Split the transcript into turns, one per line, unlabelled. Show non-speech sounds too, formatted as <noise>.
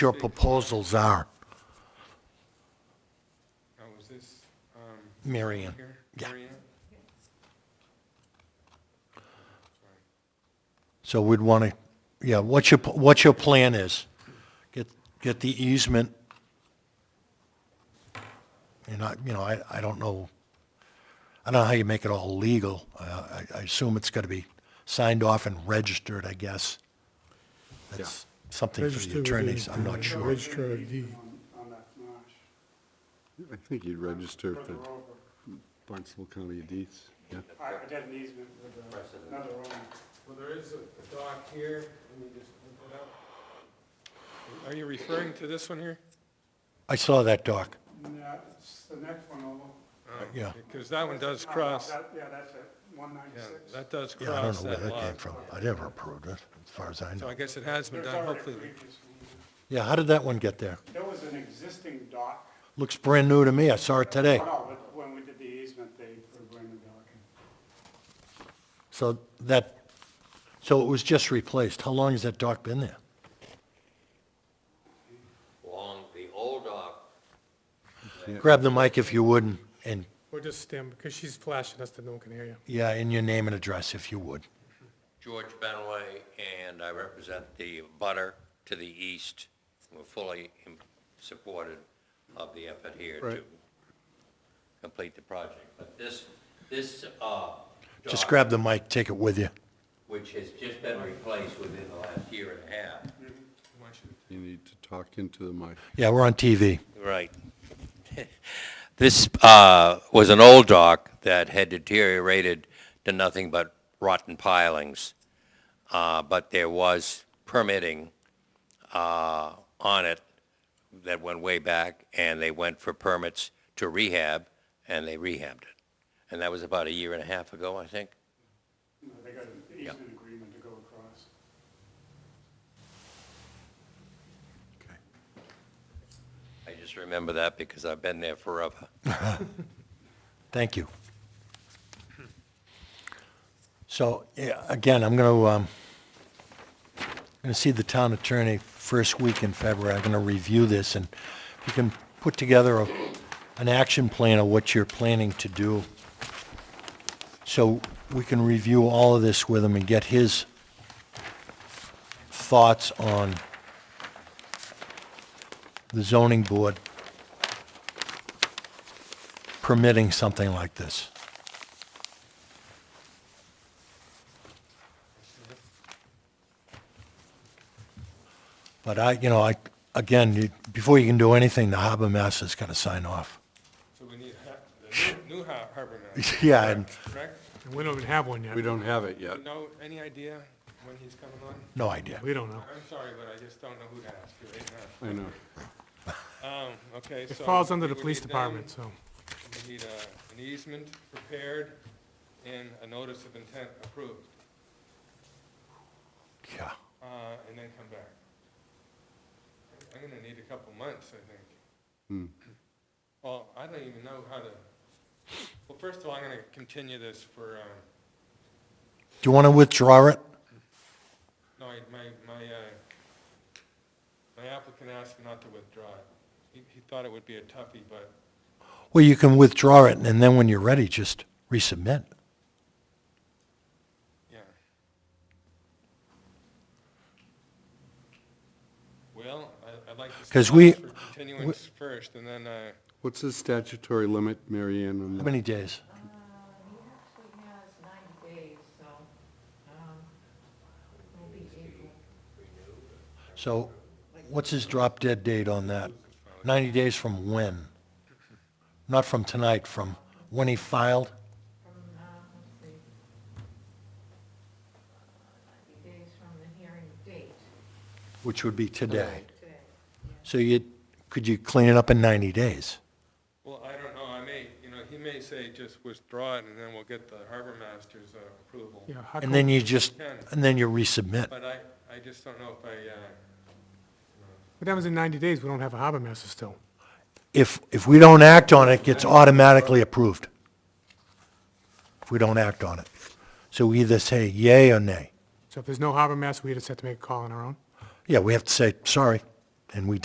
your proposals are,
Oh, is this, um,
Mary Ann.
here?
Yeah.
Mary Ann?
So we'd want to, yeah, what's your, what your plan is? Get, get the easement. And I, you know, I, I don't know, I don't know how you make it all legal. Uh, I, I assume it's got to be signed off and registered, I guess. That's something for
Register
the
with
attorneys, I'm
the
not sure.
Registrar of deed.
on that marsh.
I think you'd register for
Further over.
Barnstable County Deeds, yeah.
I I did an easement with uh, another owner.
Well, there is a a dock here, let me just look it up. Are you referring to this one here?
I saw that doc,
And that's the next one over.
yeah.
Because that one does
Oh,
cross,
that- Yeah, that's it,
yeah,
196.
that does
Yeah, I don't
cross
know where
that
that came
lot.
from. I never approved it, as far as I
So I
know.
guess it has been
There's
done,
already a
hopefully.
previous one.
Yeah, how did that one get there?
There was an existing dock.
Looks brand new to me, I saw it today.
Oh, No, but when we did the easement, they were bringing the dock in.
So that, so it was just replaced. How long has that dock been there?
along the old dock
Grab the mic if you would, and- and,
We're just stand, because she's flashing us that no one can hear you.
yeah, and your name and address if you would.
George Benway, and I represent the butter to the east. We're fully in- supported of the effort here to complete the project. But this, this, uh,
Just
dock,
grab the mic, take it with you.
which has just been replaced within the last year and a half.
You need to talk into the mic.
Yeah, we're on TV.
Right. <laughs> This uh, was an old dock that had deteriorated to nothing but rotten pilings, Uh, but there was permitting uh, on it that went way back, and they went for permits to rehab, and they rehabbed it. And that was about a year and a half ago, I think.
You know, They got an easement agreement to go across.
I just remember that because I've been there forever.
Thank you. So, yeah, again, I'm going to, um, going to see the town attorney first week in February. I'm going to review this, and if you can put together a, an action plan of what you're planning to do, so we can review all of this with him and get his thoughts on the zoning board permitting something like this. But I, you know, I, again, you- before you can do anything, the harbor master's got to sign off. <laughs>
So we need ha- the new new har- harbor master,
Yeah, and,
correct?
And we don't even have one yet.
We don't have it yet.
You know, any idea when he's coming on?
no idea.
We don't know.
I'm sorry, but I just don't know who to ask you right now.
I know.
Um, okay, so.
It falls under
we
the
will
police
need them.
department, so.
We need uh, an easement prepared and a notice of intent approved,
Yeah.
uh, and then come back. I'm gonna need a couple months, I think. Well, I don't even know how to, well, first of all, I'm gonna continue this for, um,
Do you want to withdraw it?
no, I- my, my, uh, my applicant asked me not to withdraw it. He, he thought it would be a toughie, but
Well, you can withdraw it, and then when you're ready, just resubmit.
Yeah. Well, I- I'd like to.
'Cause
stop
we-
for Continuance first, and then, uh,
What's the statutory limit, Mary Ann, on
How
that?
many days?
Uh, he actually has ninety days, so, um, it'll be April.
So what's his drop dead date on that? 90 days from when? Not from tonight, from when he filed?
from, uh, let's see. Ninety days from the hearing date.
Which would be today.
Today.
So you, could you clean it up in 90 days?
well, I don't know, I may, you know, he may say just withdraw it, and then we'll get the harbor master's uh, approval.
Yeah, how
And
come-
then you just, and then you resubmit.
But I, I just don't know if I, uh,
What happens in 90 days? We don't have a harbor master still.
If, if we don't act on it, it gets automatically approved. If we don't act on it. So we either say yay or nay.
So if there's no harbor master, we just have to make a call on our own.
Yeah, we have to say, sorry, and we